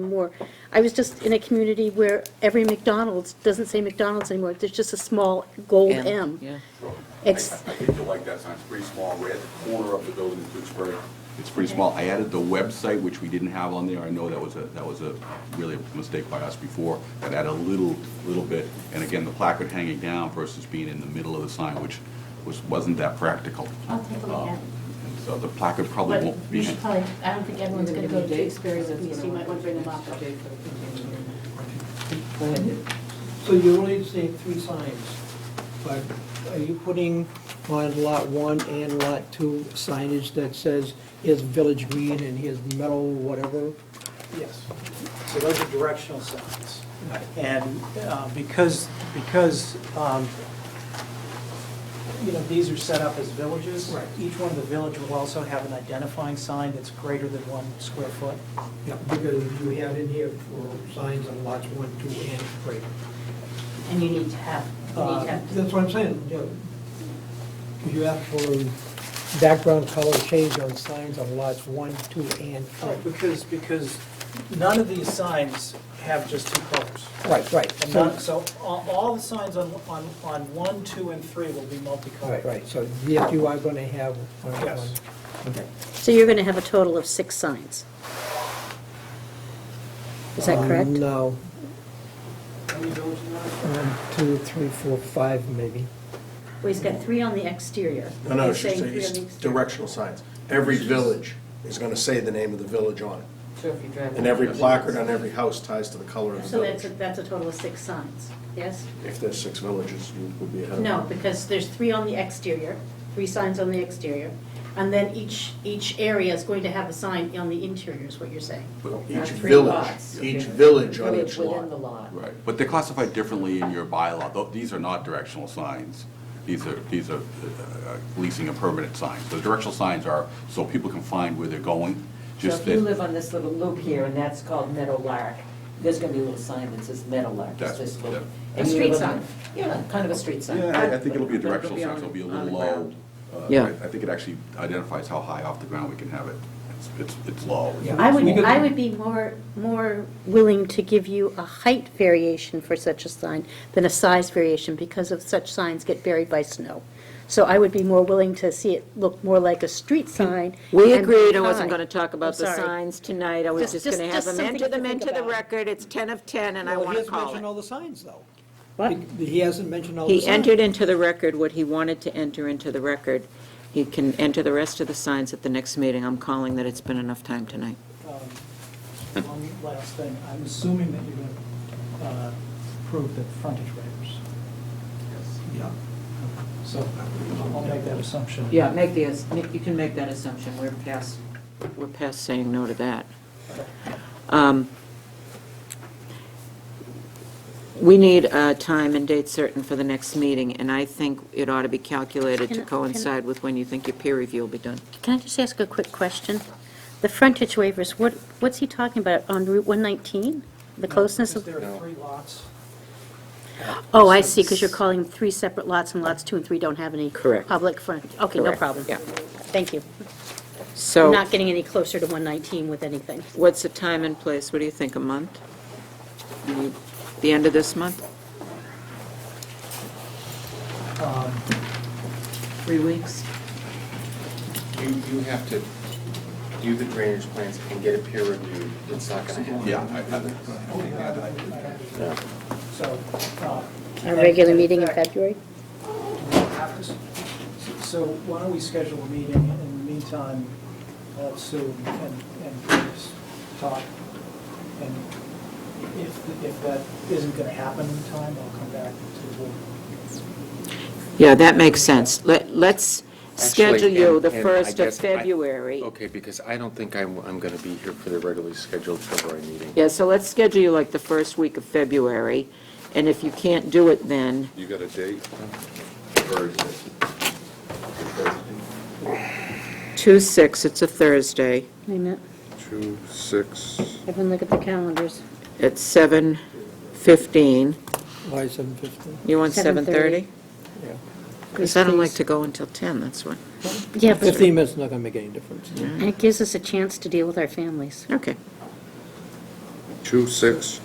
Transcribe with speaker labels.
Speaker 1: more. I was just in a community where every McDonald's doesn't say McDonald's anymore, there's just a small gold
Speaker 2: M,
Speaker 1: M.
Speaker 2: yeah.
Speaker 1: Ex-
Speaker 3: I I think you'll like that sign, it's pretty small, we're at the corner of the building in Tewksbury. It's pretty small. I added the website, which we didn't have on there, I know that was a, that was a, really a mistake by us before, that added a little, little bit, and again, the placard hanging down versus being in the middle of the sign, which was, wasn't that practical.
Speaker 4: I'll take a look at
Speaker 3: Um,
Speaker 4: it.
Speaker 3: and So the placard probably
Speaker 4: But
Speaker 3: won't
Speaker 4: you
Speaker 3: be,
Speaker 4: should probably, I don't think everyone's gonna go to Tewksbury with these, so you might wanna bring them up.
Speaker 5: So you only say three signs, but are you putting on lot one and lot two signage that says, here's Village Green and here's Meadow, whatever?
Speaker 6: Yes. So those are directional signs. And uh, because, because, um, you know, these are set up as villages.
Speaker 5: Right.
Speaker 6: Each one of the village will also have an identifying sign that's greater than one square foot.
Speaker 5: Yeah, because you have in here for signs on lots one, two, and three.
Speaker 4: And you need to have, you need
Speaker 5: Uh,
Speaker 4: to have.
Speaker 5: That's what I'm saying, yeah. 'Cause you asked for background color change on signs on lots one, two, and three.
Speaker 6: Because, because none of these signs have just two colors.
Speaker 5: Right, right.
Speaker 6: And
Speaker 5: So-
Speaker 6: none, so all, all the signs on, on, on one, two, and three will be multicolored.
Speaker 5: Right, right, so yes, you are going to have one.
Speaker 6: Yes.
Speaker 5: one- okay.
Speaker 1: So you're gonna have a total of six signs. Is that
Speaker 5: Um,
Speaker 1: correct?
Speaker 5: No,
Speaker 6: How many villages are there?
Speaker 5: one, two, three, four, five, maybe.
Speaker 4: Well, he's got three on the exterior.
Speaker 7: No, no,
Speaker 4: He's
Speaker 7: she's,
Speaker 4: saying three on the
Speaker 7: it's
Speaker 4: exterior.
Speaker 7: directional signs. Every village is gonna say the name of the village on it.
Speaker 2: So if you drive.
Speaker 7: And every placard on every house ties to the color of the
Speaker 4: So that's, a-
Speaker 7: village.
Speaker 4: that's a total of six signs, yes?
Speaker 7: If there's six villages, you would be ahead of it.
Speaker 4: No, because there's three on the exterior, three signs on the exterior, and then each, each area is going to have a sign on the interior, is what you're saying.
Speaker 3: but-
Speaker 7: Each
Speaker 2: Three
Speaker 7: village,
Speaker 2: lots.
Speaker 7: each village on
Speaker 2: Village
Speaker 7: each
Speaker 2: Within the
Speaker 7: lot.
Speaker 2: lot.
Speaker 3: right, but they're classified differently in your bylaw, Tho- these are not directional signs. These are, these are uh, leasing a permanent signs. The directional signs are so people can find where they're going,
Speaker 2: So
Speaker 3: just
Speaker 2: if
Speaker 3: that.
Speaker 2: you live on this little loop here, and that's called Meadowlark, there's gonna be a little sign that says Meadowlark, it's
Speaker 3: That's-
Speaker 2: this little.
Speaker 3: yeah.
Speaker 2: and
Speaker 4: A
Speaker 2: you
Speaker 4: street
Speaker 2: live on-
Speaker 4: sign.
Speaker 2: Yeah, kind of a street sign.
Speaker 3: Yeah, I- I think it'll be a
Speaker 2: But
Speaker 3: directional sign,
Speaker 2: on-
Speaker 3: so it'll be a
Speaker 2: on
Speaker 3: little
Speaker 2: the
Speaker 3: low.
Speaker 2: ground.
Speaker 3: Uh,
Speaker 2: Yeah.
Speaker 3: I I think it actually identifies how high off the ground we can have it. It's, it's it's low.
Speaker 5: Yeah.
Speaker 1: I would,
Speaker 5: We could-
Speaker 1: I would be more, more willing to give you a height variation for such a sign than a size variation, because of such signs get buried by snow. So I would be more willing to see it look more like a street sign.
Speaker 8: We
Speaker 1: and
Speaker 8: agreed I
Speaker 1: high.
Speaker 8: wasn't going to talk about
Speaker 1: I'm
Speaker 8: the
Speaker 1: sorry.
Speaker 8: signs tonight. I was
Speaker 1: Just-
Speaker 8: just going to
Speaker 1: just-
Speaker 8: have
Speaker 1: just
Speaker 8: them enter
Speaker 1: something to
Speaker 8: them
Speaker 1: think
Speaker 8: into the
Speaker 1: about.
Speaker 8: record. It's 10 of 10, and I want to
Speaker 5: He hasn't
Speaker 8: call
Speaker 5: mentioned
Speaker 8: it.
Speaker 5: all the signs, though.
Speaker 1: What?
Speaker 5: He hasn't mentioned all the signs.
Speaker 8: He entered into the record what he wanted to enter into the record. He can enter the rest of the signs at the next meeting. I'm calling that it's been enough time tonight.
Speaker 6: Um, One last thing, I'm assuming that you're going to uh, prove the frontage waivers.
Speaker 5: Yeah.
Speaker 6: So I'll make that assumption.
Speaker 8: Yeah, make the, ass- make- you can make that assumption. We're past, we're past saying no to that. Um, We need a time and date certain for the next meeting, and I think it ought to be calculated
Speaker 1: Can-
Speaker 8: to
Speaker 1: can-
Speaker 8: coincide with when you think your peer review will be done.
Speaker 1: Can I just ask a quick question? The frontage waivers, what, what's he talking about, on Route 119? The closeness
Speaker 6: Because
Speaker 1: of,
Speaker 6: there are three lots.
Speaker 1: oh, I see, because you're calling them three separate lots, and lots two and three don't have any
Speaker 8: Correct.
Speaker 1: public front, okay, no
Speaker 8: Correct,
Speaker 1: problem.
Speaker 8: yeah.
Speaker 1: Thank you.
Speaker 8: So.
Speaker 1: We're not getting any closer to 119 with anything.
Speaker 8: What's the time and place? What do you think, a month? The- The end of this month?
Speaker 6: Um,
Speaker 8: Three weeks.
Speaker 9: You, you have to do the drainage plans and get it peer reviewed, it's not gonna happen.
Speaker 3: Yeah, I- I-
Speaker 6: So. uh,
Speaker 1: Our regular meeting in February?
Speaker 6: have to s- So why don't we schedule a meeting, in the meantime, uh, Sue and, and Chris talk, and if, if that isn't gonna happen in time, I'll come back to the board.
Speaker 8: Yeah, that makes sense. Let, let's schedule
Speaker 9: Actually,
Speaker 8: you
Speaker 9: and-
Speaker 8: the
Speaker 9: and I
Speaker 8: 1st of
Speaker 9: guess I- Oh.
Speaker 8: February.
Speaker 9: Okay, because I don't think I'm, I'm gonna be here for the regularly scheduled February meeting.
Speaker 8: Yeah, so let's schedule you like the first week of February, and if you can't do it then,
Speaker 3: You got a date? Or is it?
Speaker 8: 2/6, it's a Thursday,
Speaker 1: Wait a minute,
Speaker 9: Two, six.
Speaker 1: everyone look at the calendars.
Speaker 8: at 7:15.
Speaker 5: Why seven fifteen?
Speaker 8: You want
Speaker 1: 7:30?
Speaker 8: 7:30? Because I don't like to go until 10, that's why.
Speaker 1: Yeah, but
Speaker 5: Fifteen minutes
Speaker 1: Mm.
Speaker 5: not going to make any difference.
Speaker 1: it gives us a chance to deal with our families.
Speaker 8: Okay.
Speaker 9: two six